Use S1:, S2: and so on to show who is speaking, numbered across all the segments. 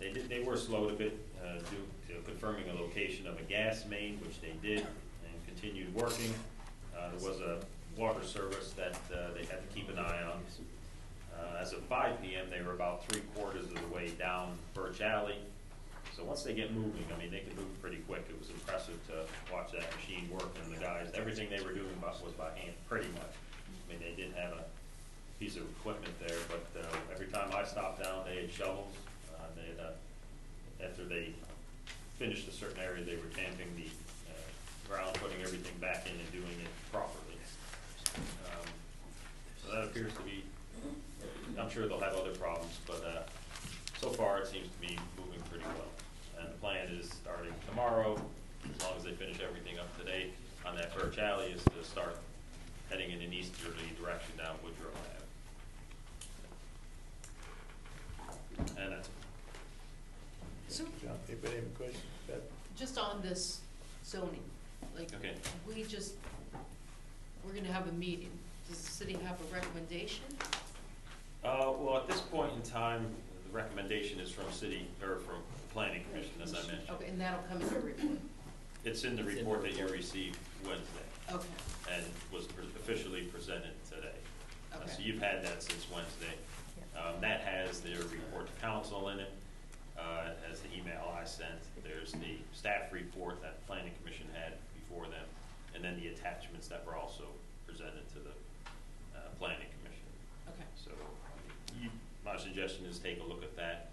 S1: did, they were slowed a bit, uh, due to confirming a location of a gas main, which they did, and continued working. Uh, there was a water service that, uh, they had to keep an eye on. Uh, as of five PM, they were about three quarters of the way down Birch Alley. So once they get moving, I mean, they can move pretty quick. It was impressive to watch that machine work and the guys, everything they were doing by- was by hand, pretty much. I mean, they did have a piece of equipment there, but uh, every time I stopped down, they had shovels. Uh, They had, uh, after they finished a certain area, they were tamping the uh, ground, putting everything back in and doing it properly. Um, So that appears to be, I'm sure they'll have other problems, but uh, so far it seems to be moving pretty well. And the plan is starting tomorrow, as long as they finish everything up today on that Birch Alley, is to start heading in an easterly direction down Woodrow Ave. And that's,
S2: So,
S3: John, anybody have a question? Beth?
S2: just on this zoning, like,
S1: Okay.
S2: we just, we're gonna have a meeting. Does the city have a recommendation?
S1: uh, well, at this point in time, the recommendation is from city, or from the planning commission, as I mentioned.
S2: Okay, and that'll come in the report.
S1: It's in the report that you received Wednesday
S2: Okay,
S1: and was pre- officially presented today. Uh, So
S2: Okay.
S1: you've had that since Wednesday. Um, that has their report to council in it, uh, it has the email I sent. There's the staff report that the planning commission had before them, and then the attachments that were also presented to the, uh, planning commission.
S2: okay.
S1: So you, my suggestion is take a look at that,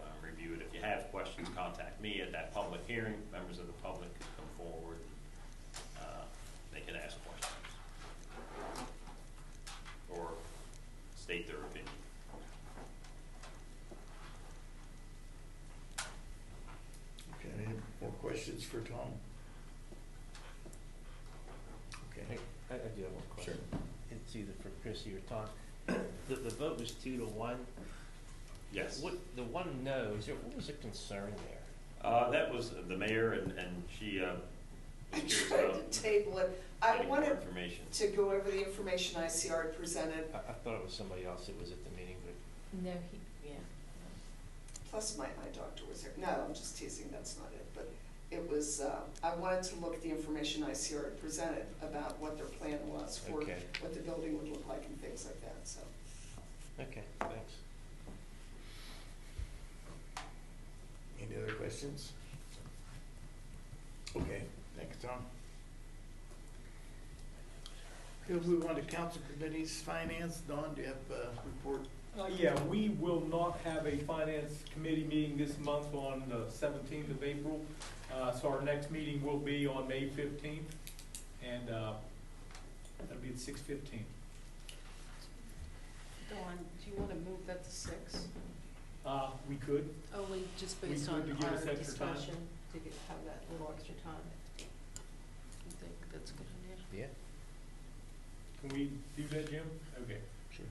S1: um, review it. If you have questions, contact me at that public hearing. Members of the public can come forward. uh, They can ask questions. Or state their opinion.
S3: Okay, any more questions for Tom? Okay,
S4: I, I do have one
S3: sure.
S4: question. It's either for Chrissy or Tom. The, the vote was two to one.
S1: Yes.
S4: What, the one no, is there, what was the concern there?
S1: Uh, That was the mayor and, and she uh, was
S5: I
S1: curious
S5: tried
S1: about
S5: to table it. I
S1: getting more
S5: wanted
S1: information.
S5: to go over the information ICR presented,
S4: I, I thought it was somebody else that was at the meeting, but
S2: No, he, yeah.
S5: plus my eye doctor was here. No, I'm just teasing, that's not it, but it was, uh, I wanted to look at the information ICR had presented about what their plan was for
S4: Okay.
S5: what the building would look like and things like that, so.
S4: okay, thanks.
S3: Any other questions? Okay, thank you, Tom. Okay, we'll move on to council committees, finance. Don, do you have a report?
S6: Uh, yeah, we will not have a finance committee meeting this month on the seventeenth of April. Uh, so our next meeting will be on May fifteenth, and, uh, that'll be at six fifteen.
S2: Dawn, do you wanna move that to six?
S6: Uh, we could,
S2: Only just
S6: We
S2: based
S6: could
S2: on
S6: to give
S2: our
S6: us extra time.
S2: discussion, to get- have that little extra time. You think that's a good idea?
S4: Yeah.
S6: can we do that, Jim? Okay,
S3: Sure.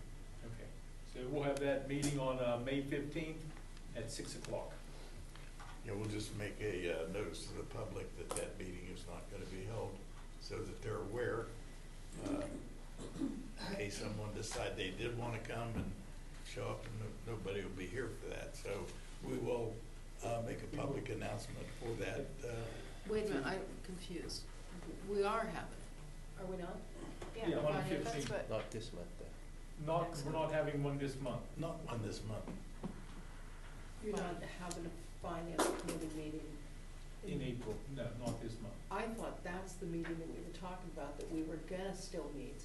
S6: okay. So we'll have that meeting on, uh, May fifteenth at six o'clock.
S3: Yeah, we'll just make a uh, notice to the public that that meeting is not gonna be held, so that they're aware. uh, In case someone decide they did wanna come and show up, and no- nobody will be here for that, so we will uh, make a public announcement for that. uh,
S2: Wait a minute, I'm confused. We are having it, are we not?
S6: Yeah, on the
S2: Yeah, that's
S6: 15th.
S2: what-
S4: Not this month, though.
S6: Not, we're not having one this month.
S3: Not one this month,
S7: You're not having a finance committee meeting.
S6: In April, no, not this month.
S7: I thought that's the meeting that we were talking about, that we were gonna still meet.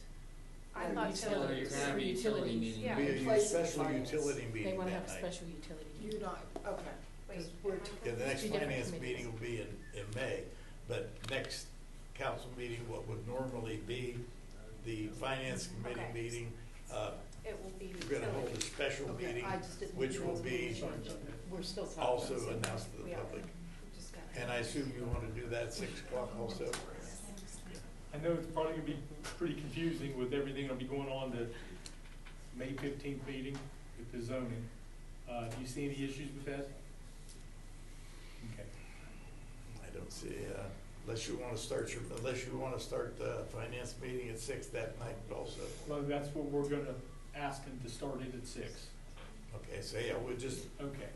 S5: I
S7: Or
S5: thought
S8: so. You're gonna have a utility meeting.
S7: Yeah.
S3: be
S7: in
S3: a
S7: place of the
S3: special
S7: finance.
S3: utility
S8: They
S3: meeting
S8: wanna have
S3: that
S8: a
S3: night.
S8: special utility
S7: You're
S8: meeting.
S7: not, okay. 'Cause
S8: Wait,
S7: we're
S8: am I
S7: t-
S3: Yeah, the next
S8: Two different
S3: finance
S8: committees.
S3: meeting will be in, in May, but next council meeting, what would normally be the finance committee
S8: Okay.
S3: meeting, uh,
S8: It will be
S3: we're gonna hold a special
S7: Okay,
S3: meeting,
S7: I just didn't
S3: which
S7: know
S3: will
S7: that's
S3: be
S7: what we should- We're still talking. about
S3: also
S7: something.
S3: announced to the
S8: Yeah.
S3: public.
S8: Just got it.
S3: And I assume you wanna do that at six o'clock also?
S6: I know it's probably gonna be pretty confusing with everything that'll be going on the May fifteenth meeting with the zoning. Uh, do you see any issues with that? Okay,
S3: I don't see, uh, unless you wanna start your, unless you wanna start the finance meeting at six that night also.
S6: well, that's what we're gonna ask them to start it at six.
S3: Okay, so yeah, we'll just
S6: Okay,